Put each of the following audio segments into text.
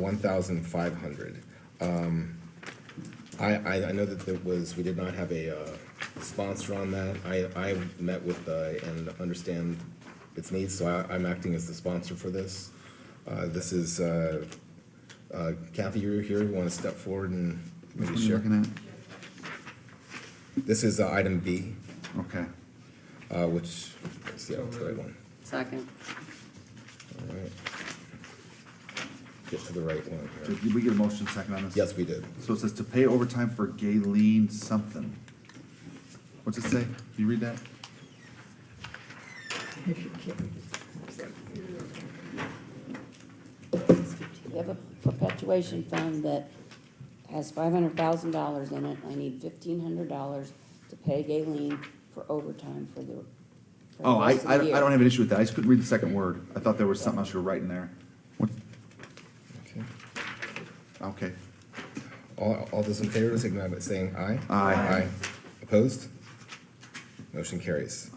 one thousand five hundred. Um, I, I, I know that there was, we did not have a, uh, sponsor on that. I, I met with, uh, and understand its needs, so I, I'm acting as the sponsor for this. Uh, this is, uh, uh, Kathy, you're here, you wanna step forward and Which maybe one are you share? looking This is uh, item B, at? Okay. uh, which, let's see, that's the right one. Second. All right. Get to the right one So here. Did we get a motion second on this? Yes, we did. So it says to pay overtime for Galen something. What's it say? Can you read that? We have a perpetuation fund that has five hundred thousand dollars in it. I need fifteen hundred dollars to pay Galen for overtime for the. for the Oh, I, rest of the I don't- I year. don't have an issue with that. I just couldn't read the second word. I thought there was something else you were writing there. What? Okay. Okay. All, all those in favor, signify by saying aye. Aye. Opposed? Motion carries.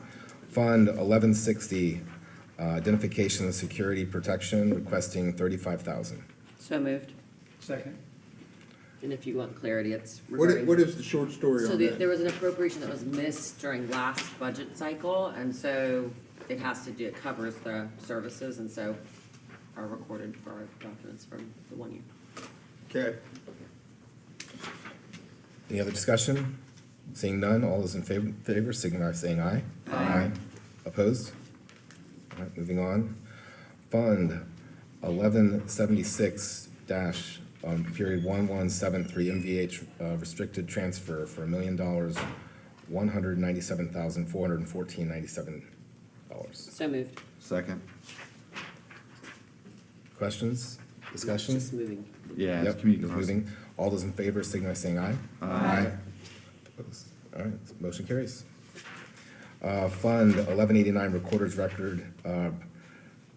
Fund eleven sixty, uh, identification and security protection, requesting thirty-five thousand. So moved. Second. And if you want clarity, it's What is, regarding. what is the short story So on the- there that? was an appropriation that was missed during last budget cycle, and so it has to do, it covers the services, and so are recorded for our documents from the one year. Okay, Any other discussion? Seeing none, all those in favor, favor, signify by saying aye. Aye. Opposed? All right, moving on. Fund eleven seventy-six dash, um, period one one seven three MVH, uh, restricted transfer for a million dollars, one hundred ninety-seven thousand, four hundred and fourteen ninety-seven dollars. So moved. Second. Questions? Discussions? Just moving. Yeah. it's Yep, community it's notice. moving. All those in favor, signify by saying aye. Aye. Opposed? All right, motion carries. Uh, Fund eleven eighty-nine Recorder's Record, uh,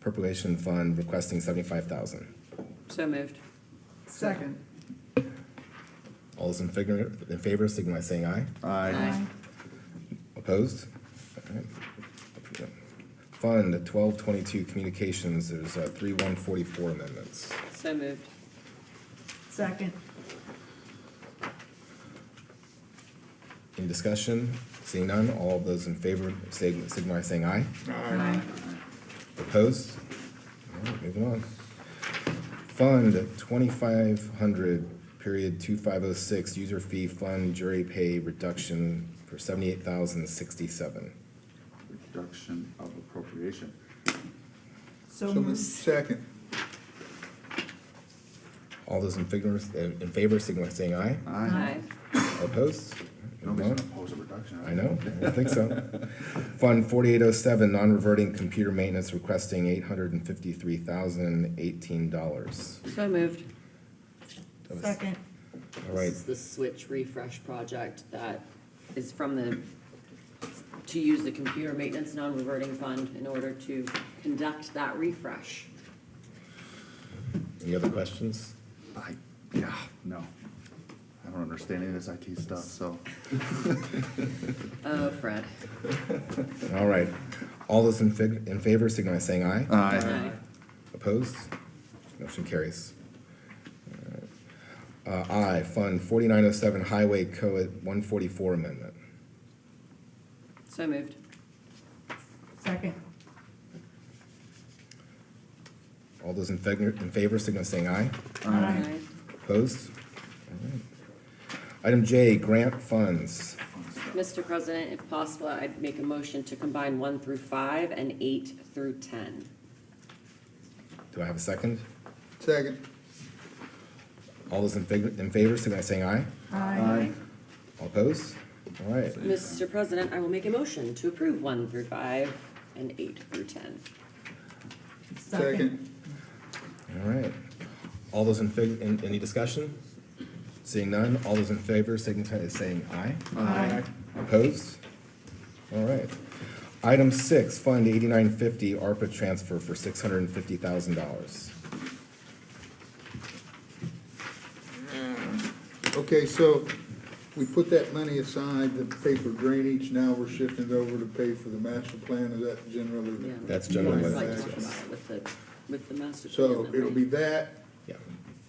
Perpetuation Fund requesting seventy-five thousand. So moved. Second. All those in favor, in favor, signify by saying aye. Aye. Opposed? All right. Fund twelve twenty-two Communications, there's, uh, three one forty-four amendments. So moved. Second. Any discussion? Seeing none, all those in favor, sig- signify by saying aye. Aye. Opposed? All right, moving on. Fund twenty-five hundred, period two five oh six, user fee fund jury pay reduction for seventy-eight thousand sixty-seven. Reduction of appropriation. so So moved. moved. second, All those in favor, in favor, signify by saying aye. Aye. Opposed? All right, Moving Nobody's gonna on. oppose a reduction. I know, I don't think so. Fund forty-eight oh seven, non-reverting computer maintenance requesting eight hundred and fifty-three thousand eighteen dollars. So moved. Second. All right, This is the switch refresh project that is from the, to use the computer maintenance non-reverting fund in order to conduct that refresh. any other questions? I, yeah, no. I don't understand any of this IT stuff, so. Oh, Fred. All right. All those in fig, in favor, signify by saying aye. Aye. Opposed? Motion carries. Uh, aye, Fund forty-nine oh seven Highway Code one forty-four amendment. So moved. Second. All those in favor, in favor, signify by saying aye. Aye. Opposed? All right. Item J, grant funds. Mr. President, if possible, I'd make a motion to combine one through five and eight through ten. Do I have a second? second, All those in favor, in favor, signify by saying aye. Aye. All opposed? All right. Mr. President, I will make a motion to approve one through five and eight through ten. second, All right. All those in favor, in, any discussion? Seeing none, all those in favor signify by saying aye. Aye. Opposed? All right. Item six, Fund eighty-nine fifty, ARPA transfer for six hundred and fifty thousand dollars. okay, so we put that money aside to pay for drainage, now we're shifting it over to pay for the master plan, is that generally? Yeah. the- That's generally Yeah, what it I'd like is, to talk yes. about it With the, with the master. plan So that it'll we- be that,